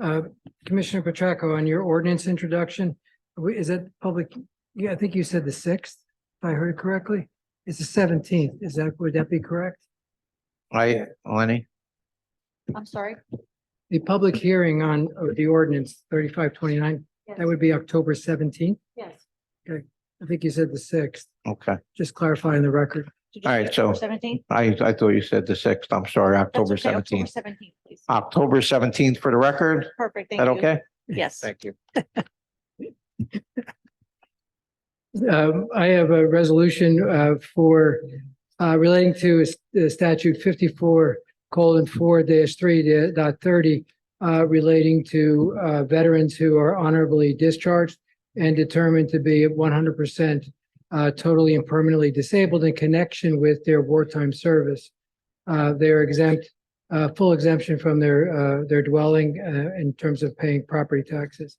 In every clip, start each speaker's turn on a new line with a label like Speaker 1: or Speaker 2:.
Speaker 1: Uh, Commissioner Petracca, on your ordinance introduction, we- is that public? Yeah, I think you said the sixth, if I heard correctly. It's the seventeenth. Is that, would that be correct?
Speaker 2: I, Lenny,
Speaker 3: I'm sorry.
Speaker 1: The public hearing on uh, the ordinance thirty-five twenty-nine,
Speaker 3: Yes.
Speaker 1: that would be October seventeenth.
Speaker 3: Yes.
Speaker 1: I think you said the sixth,
Speaker 2: okay.
Speaker 1: just clarifying the record.
Speaker 2: All right, so-
Speaker 3: Seventeenth.
Speaker 2: I, I thought you said the sixth. I'm sorry, October seventeenth.
Speaker 3: Seventeenth, please.
Speaker 2: October seventeenth for the record. Is
Speaker 3: Perfect, thank
Speaker 2: that
Speaker 3: you.
Speaker 2: okay?
Speaker 3: Yes.
Speaker 2: you.
Speaker 1: Um, I have a resolution, uh, for, uh, relating to s- the statute fifty-four colon four dash three da- dot thirty, uh, relating to, uh, veterans who are honorably discharged and determined to be one hundred percent, uh, totally and permanently disabled in connection with their wartime service. Uh, they're exempt, uh, full exemption from their, uh, their dwelling, uh, in terms of paying property taxes.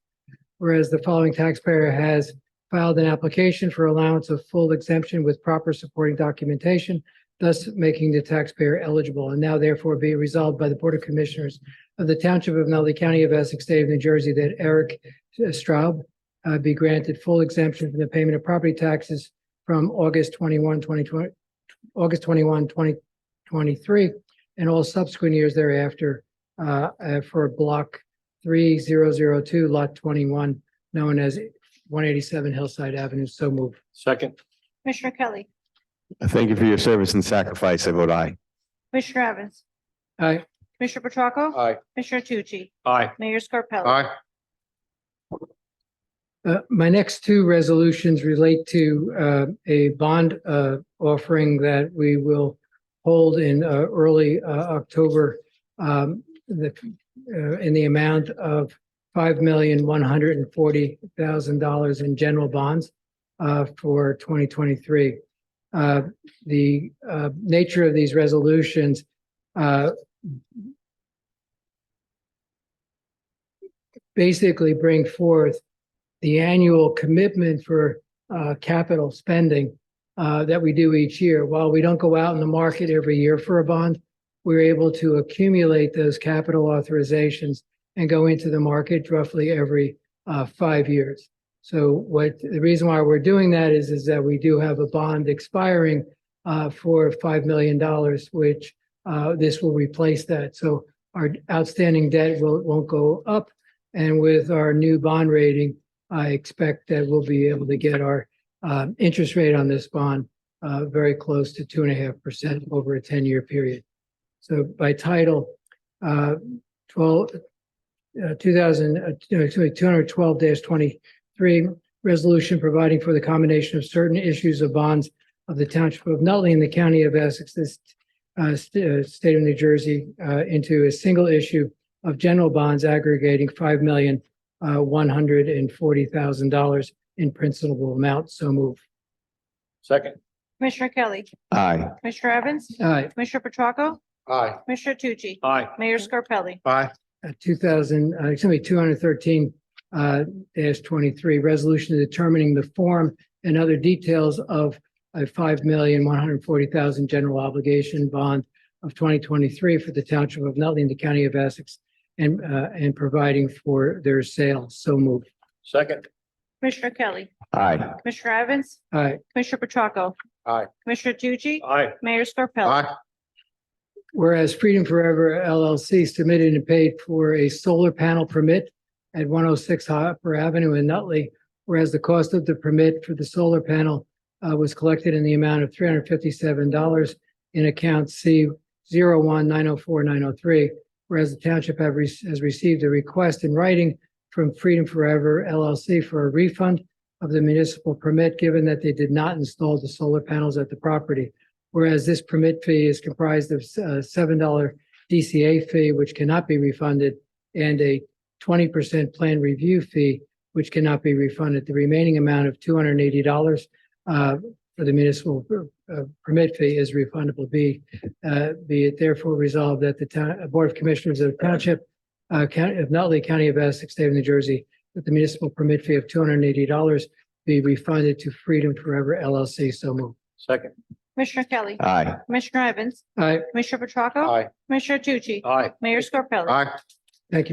Speaker 1: Whereas the following taxpayer has filed an application for allowance of full exemption with proper supporting documentation, thus making the taxpayer eligible, and now therefore be resolved by the Board of Commissioners of the Township of Nutley County of Essex, State of New Jersey, that Eric Straub uh, be granted full exemption from the payment of property taxes from August 21, 2020, August 21, 2023, and all subsequent years thereafter uh, uh, for Block 3002, Lot 21, known as one eighty-seven Hillside Avenue, so moved.
Speaker 4: Second.
Speaker 3: Commissioner Kelly,
Speaker 5: Thank you for your service and sacrifice. I vote aye.
Speaker 3: Commissioner Evans,
Speaker 1: Aye.
Speaker 3: Commissioner Petracca.
Speaker 4: Aye.
Speaker 3: Commissioner Tucci,
Speaker 4: Aye.
Speaker 3: Mayor Scarpelli.
Speaker 4: Aye.
Speaker 1: Uh, my next two resolutions relate to, uh, a bond, uh, offering that we will hold in, uh, early, uh, October, um, the, uh, in the amount of five million, one hundred and forty thousand dollars in general bonds, uh, for twenty twenty-three. Uh, the, uh, nature of these resolutions, uh, basically bring forth the annual commitment for uh, capital spending uh, that we do each year. While we don't go out in the market every year for a bond, we're able to accumulate those capital authorizations and go into the market roughly every uh, five years. So what, the reason why we're doing that is, is that we do have a bond expiring uh, for $5 million, which uh, this will replace that. So our outstanding debt will, won't go up. And with our new bond rating, I expect that we'll be able to get our um, interest rate on this bond uh, very close to two and a half percent over a ten-year period. So by title, uh, twelve, uh, two thousand, two hundred twelve twenty-three, resolution providing for the combination of certain issues of bonds of the Township of Nutley and the County of Essex, this uh, st- uh, state of New Jersey, uh, into a single issue of general bonds aggregating five million uh, one hundred and forty thousand dollars in principal amount. So move.
Speaker 4: Second.
Speaker 3: Commissioner Kelly,
Speaker 5: Aye.
Speaker 3: Commissioner Evans,
Speaker 1: Aye.
Speaker 3: Commissioner Petracca,
Speaker 4: Aye.
Speaker 3: Commissioner Tucci,
Speaker 4: Aye.
Speaker 3: Mayor Scarpelli.
Speaker 4: Aye.
Speaker 1: uh, two thousand, uh, excuse me, two hundred thirteen, uh, dash twenty-three, resolution determining the form and other details of a five million, one hundred forty thousand general obligation bond of twenty twenty-three for the township of Nutley and the county of Essex and, uh, and providing for their sale. So move.
Speaker 4: Second.
Speaker 3: Commissioner Kelly,
Speaker 5: Aye.
Speaker 3: Commissioner Evans,
Speaker 1: Aye.
Speaker 3: Commissioner Petracca.
Speaker 4: Aye.
Speaker 3: Commissioner Tucci,
Speaker 4: Aye.
Speaker 3: Mayor Scarpelli.
Speaker 4: Aye.
Speaker 1: Whereas Freedom Forever LLC submitted and paid for a solar panel permit at one oh six Hopper Avenue in Nutley, whereas the cost of the permit for the solar panel uh, was collected in the amount of three hundred fifty-seven dollars in account C zero one nine oh four nine oh three, whereas the township have re- has received a request in writing from Freedom Forever LLC for a refund of the municipal permit, given that they did not install the solar panels at the property whereas this permit fee is comprised of a seven dollar DCA fee, which cannot be refunded, and a twenty percent plan review fee, which cannot be refunded. The remaining amount of two hundred and eighty dollars uh, for the municipal uh, permit fee is refundable. Be uh, be it therefore resolved that the town, uh, Board of Commissioners of the Township uh, County of Nutley, County of Essex, State of New Jersey, that the municipal permit fee of two hundred and eighty dollars be refunded to Freedom Forever LLC. So moved.
Speaker 4: Second.
Speaker 3: Commissioner Kelly,
Speaker 5: Aye.
Speaker 3: Commissioner Evans,
Speaker 1: Aye.
Speaker 3: Commissioner Petracca.
Speaker 4: Aye. Uh,
Speaker 3: Commissioner Tucci,
Speaker 4: Aye.
Speaker 3: Mayor Scarpelli.
Speaker 4: Aye.